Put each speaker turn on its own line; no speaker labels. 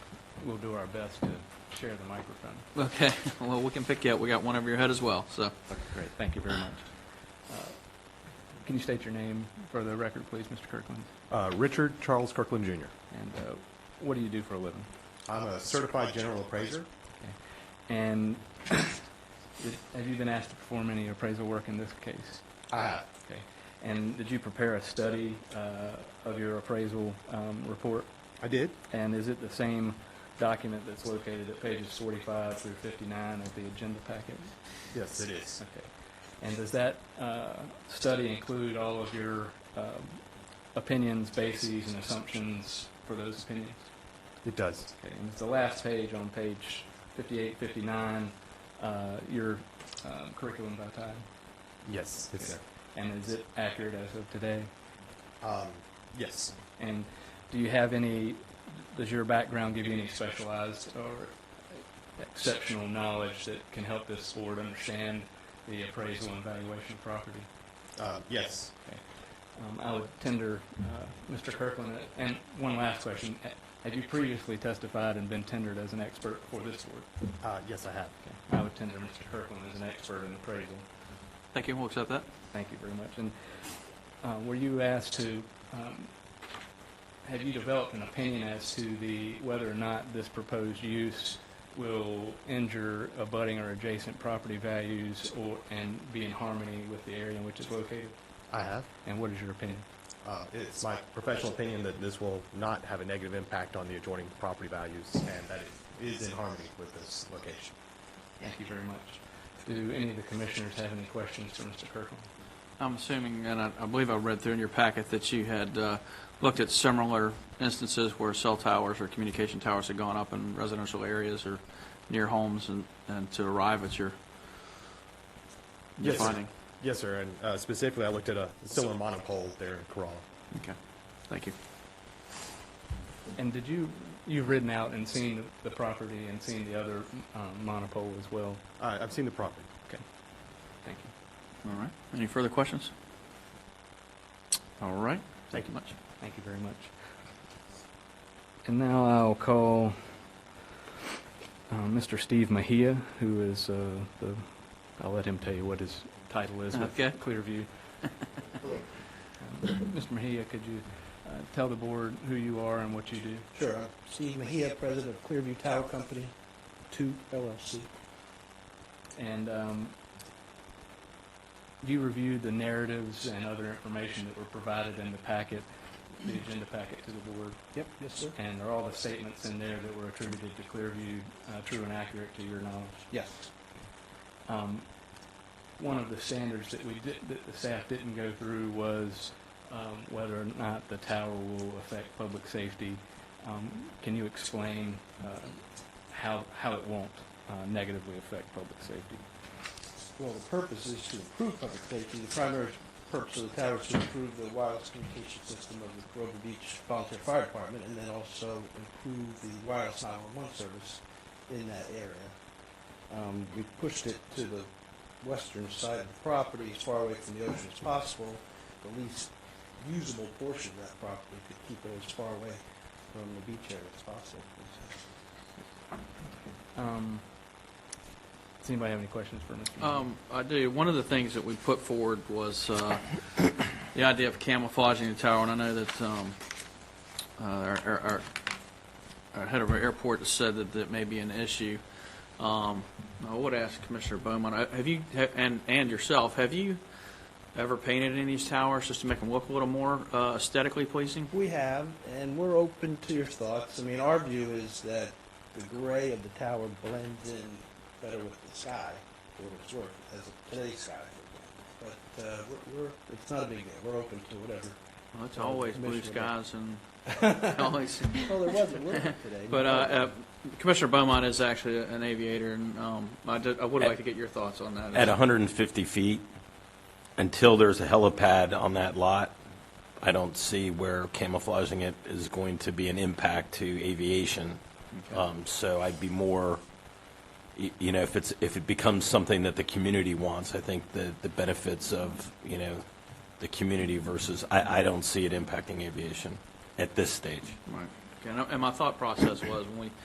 we'll do our best to share the microphone.
Okay, well, we can pick you up. We got one over your head as well, so.
Okay, great, thank you very much. Uh, Can you state your name for the record, please, Mr. Kirkland?
Uh, Richard Charles Kirkland Jr.
And uh, what do you do for a living?
I'm a certified general appraiser.
And have you been asked to perform any appraisal work in this case?
I have.
Okay. And did you prepare a study uh, of your appraisal um, report?
I did?
And is it the same document that's located at pages 45 through 59 of the agenda packet?
Yes, it is.
Okay. And does that uh, study include all of your um, opinions, bases, and assumptions for those opinions?
It does.
Okay, and it's the last page on page 58, 59, uh, your um, curriculum by title.
Yes, it's there.
And is it accurate as of today?
Um, yes.
And do you have any, does your background give you any specialized or exceptional knowledge that can help this board understand the appraisal and valuation of property?
Uh, yes.
Um, I would tender, uh, Mr. Kirkland, uh, and one last question. Ha- Have you previously testified and been tendered as an expert for this board?
Uh, yes, I have.
Okay. I would tender Mr. Kirkland as an expert in appraisal.
Thank you, we'll accept that.
Thank you very much. And uh, were you asked to, um, have you developed an opinion as to the, whether or not this proposed use will injure abutting or adjacent property values or, and be in harmony with the area in which it's located?
I have.
And what is your opinion?
Uh, it's my professional opinion that this will not have a negative impact on the adjoining property values and that it is in harmony with this location.
Thank you very much. Do any of the commissioners have any questions for Mr. Kirkland?
I'm assuming, and I I believe I read through in your packet, that you had uh, looked at similar instances where cell towers or communication towers had gone up in residential areas or near homes and, and to arrive at your your
Yes, sir.
finding.
Yes, sir. And uh, specifically, I looked at a similar monopole there in Corolla.
Okay, thank you.
And did you, you've ridden out and seen the property and seen the other um, monopole as well?
Uh, I've seen the property.
Thank you.
All right, any further questions? All right.
Thank
you much.
Thank you very much. And now I'll call uh, Mr. Steve Mahia, who is uh, the, I'll let him tell you what his title is with
Okay.
Clearview. Um, Mr. Mahia, could you uh, tell the board who you are and what you do?
Sure. I'm Steve Mahia, president of Clearview Tower Company, 2 LLC.
And um, you reviewed the narratives and other information that were provided in the packet, the agenda packet to the board.
Yep, yes, sir.
And are all the statements in there that were attributed to Clearview uh, true and accurate to your knowledge?
Yes.
Um, One of the standards that we did, that the staff didn't go through was um, whether or not the tower will affect public safety. Um, Can you explain uh, how, how it won't uh, negatively affect public safety?
Well, the purpose is to improve public safety. The primary purpose of the tower is to improve the wireless communication system of the Grover Beach Volunteer Fire Department and then also improve the wireless 911 service in that area. Um, We pushed it to the western side of the property, as far away from the ocean as possible. The least usable portion of that property to keep it as far away from the beach area as possible.
Um, Does anybody have any questions for Mr. Mayor?
Um, I do. One of the things that we put forward was uh, the idea of camouflaging the tower, and I know that um, uh, our, our- our, our head of our airport has said that that may be an issue. Um, I would ask Commissioner Bowman, uh, have you, ha- and, and yourself, have you ever painted any of these towers just to make them look a little more uh, aesthetically pleasing?
We have, and we're open to your thoughts. I mean, our view is that the gray of the tower blends in better with the sky, or it's work, as of today's sky. But uh, we're, we're, it's not a big deal. We're open to whatever.
Well, it's always blue
Commissioner.
skies and always
Well, there wasn't work today.
But uh, uh, Commissioner Beaumont is actually an aviator, and um, I did- I would like to get your thoughts on that.
At 150 feet, until there's a helipad on that lot, I don't see where camouflaging it is going to be an impact to aviation. Um, So I'd be more, y- you know, if it's, if it becomes something that the community wants, I think the, the benefits of, you know, the community versus, I, I don't see it impacting aviation at this stage.
Right. Okay, And I- and my thought process was, when we